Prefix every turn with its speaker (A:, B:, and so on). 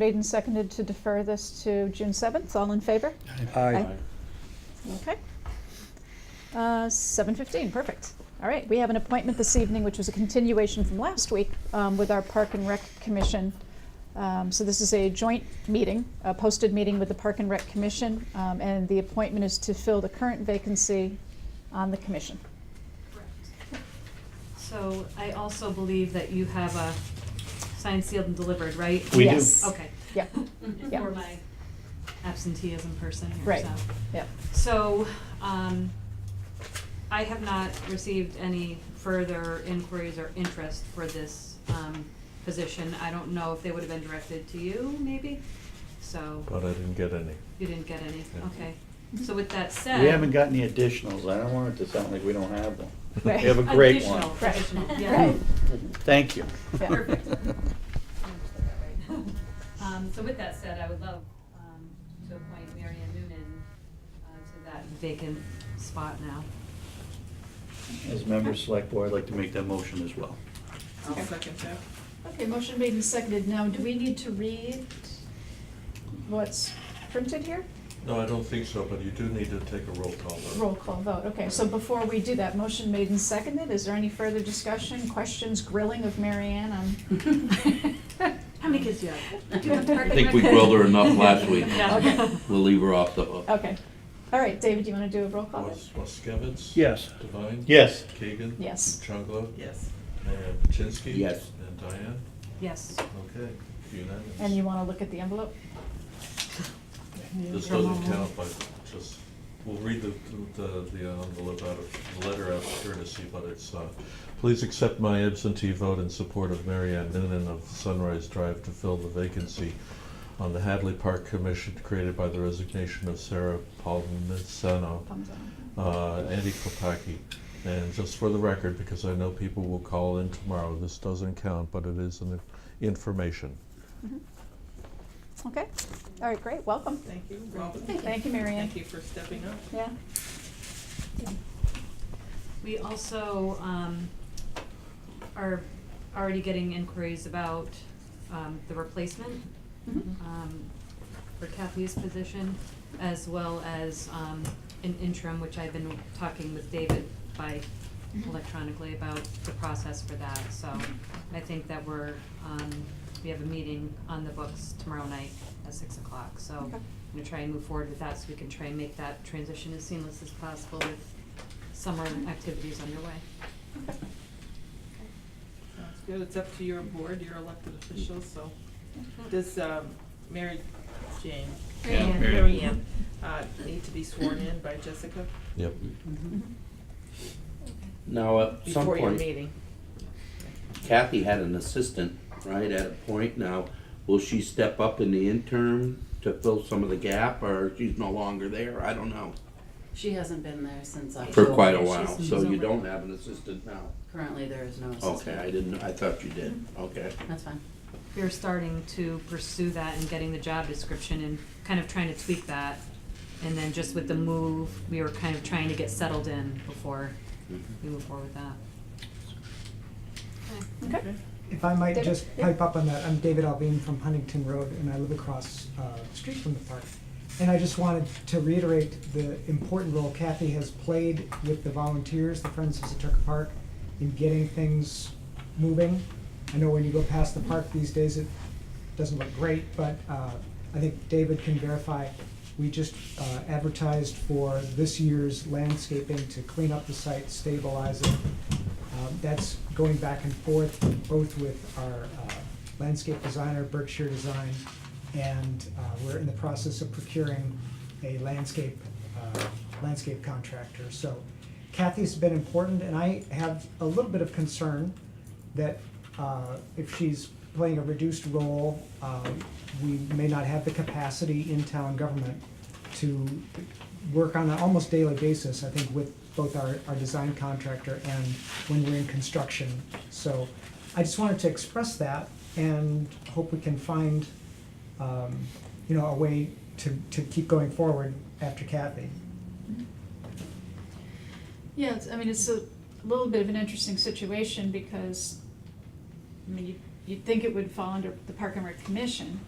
A: Made and seconded to defer this to June 7th. All in favor?
B: Aye.
C: Aye.
A: Okay. Uh, 7:15, perfect. All right, we have an appointment this evening, which was a continuation from last week um, with our Park and Rec Commission. Um, So this is a joint meeting, a posted meeting with the Park and Rec Commission, um, and the appointment is to fill the current vacancy on the commission.
D: Correct. So I also believe that you have a signed, sealed, and delivered, right?
C: We do.
A: Yes.
D: Okay.
A: Yep, yep.
D: For my absenteeism person here,
A: Right,
D: so.
A: yep.
D: So, um, I have not received any further inquiries or interest for this, um, position. I don't know if they would have been directed to you, maybe, so.
E: But I didn't get any.
D: You didn't get any,
E: Yeah.
D: okay. So with that said.
C: We haven't got any additionals, I don't want it to sound like we don't have them. We
A: Right.
C: have a great one.
D: Additional,
A: Right.
D: additional, yeah.
A: Right.
C: Thank you.
A: Yeah.
D: Perfect. Um, so with that said, I would love, um, to appoint Mary Ann Noonan, uh, to that vacant spot now.
C: As members of select board, I'd like to make that motion as well.
F: I'll second that.
A: Okay, motion made and seconded. Now, do we need to read what's printed here?
E: No, I don't think so, but you do need to take a roll call vote.
A: Roll call vote, okay, so before we do that, motion made and seconded, is there any further discussion, questions, grilling of Mary Ann on?
D: How many kids do you have? Do you have
A: I
D: target
A: Perfect.
G: think we grilled her enough last week.
D: Yeah.
A: Okay.
G: We'll leave her off the hook.
A: Okay, all right, David, do you wanna do a roll call vote?
E: Was Waskevitz?
C: Yes.
E: Devine?
C: Yes.
E: Keegan?
A: Yes.
E: Chunglo?
F: Yes.
E: And Chinsky?
G: Yes.
E: And Diane?
D: Yes.
E: Okay, unanimous.
A: And you wanna look at the envelope?
E: This doesn't count, but just, we'll read the, the, the envelope out of, the letter out of courtesy, but it's, uh, please accept my absentee vote in support of Mary Ann Noonan of Sunrise Drive to fill the vacancy on the Hadley Park Commission created by the resignation of Sarah Palmisano,
A: Thumbs down.
E: uh, Andy Kopaki. And just for the record, because I know people will call in tomorrow, this doesn't count, but it is an information.
A: Mm-hmm. Okay, all right, great, welcome.
F: Thank you, welcome.
A: Thank you, Mary Ann.
F: Thank you for stepping up.
A: Yeah.
D: We also um, are already getting inquiries about um, the replacement
A: Mhm.
D: um, for Kathy's position, as well as um, an interim, which I've been talking with David by electronically about the process for that. So I think that we're, um, we have a meeting on the books tomorrow night at six o'clock. So I'm
A: Okay.
D: gonna try and move forward with that so we can try and make that transition as seamless as possible with summer activities underway.
A: Okay.
F: Sounds good. It's up to your board, your elected officials, so does um, Mary Jane?
D: Mary Yeah, Ann. Mary Ann.
F: Mary Ann, uh, need to be sworn in by Jessica
E: Yep.
D: Mm-hmm.
A: Mhm.
G: Now, at some
F: before your
G: point,
F: meeting?
G: Kathy had an assistant, right, at a point now. Will she step up in the interim to fill some of the gap, or she's no longer there? I don't know.
H: She hasn't been there since I.
G: For quite a
D: she's-
G: while,
D: she's
G: so you
D: over.
G: don't have an assistant now.
H: Currently, there is no assistant.
G: Okay, I didn't, I thought you did, okay.
H: That's fine.
D: We're starting to pursue that and getting the job description and kind of trying to tweak that. And then just with the move, we were kind of trying to get settled in before we move forward with that.
A: Okay,
I: If I might
A: David?
I: just pipe up on that, I'm David Alvin from Huntington Road, and I live across uh, the street from the park. And I just wanted to reiterate the important role Kathy has played with the volunteers, the Friends of Setucket Park, in getting things moving. I know when you go past the park these days, it doesn't look great, but uh, I think David can verify, we just uh, advertised for this year's landscaping to clean up the site, stabilize it, um, That's going back and forth, both with our uh, landscape designer, Berkshire Design, and uh, we're in the process of procuring a landscape, uh, landscape contractor. So Kathy's been important, and I have a little bit of concern that uh, if she's playing a reduced role, um, we may not have the capacity in town government to work on an almost daily basis, I think, with both our, our design contractor and when we're in construction. So I just wanted to express that and hope we can find, um, you know, a way to, to keep going forward after Kathy.
A: yeah, it's, I mean, it's a little bit of an interesting situation because, I mean, you- you'd think it would fall under the Park and Rec Commission,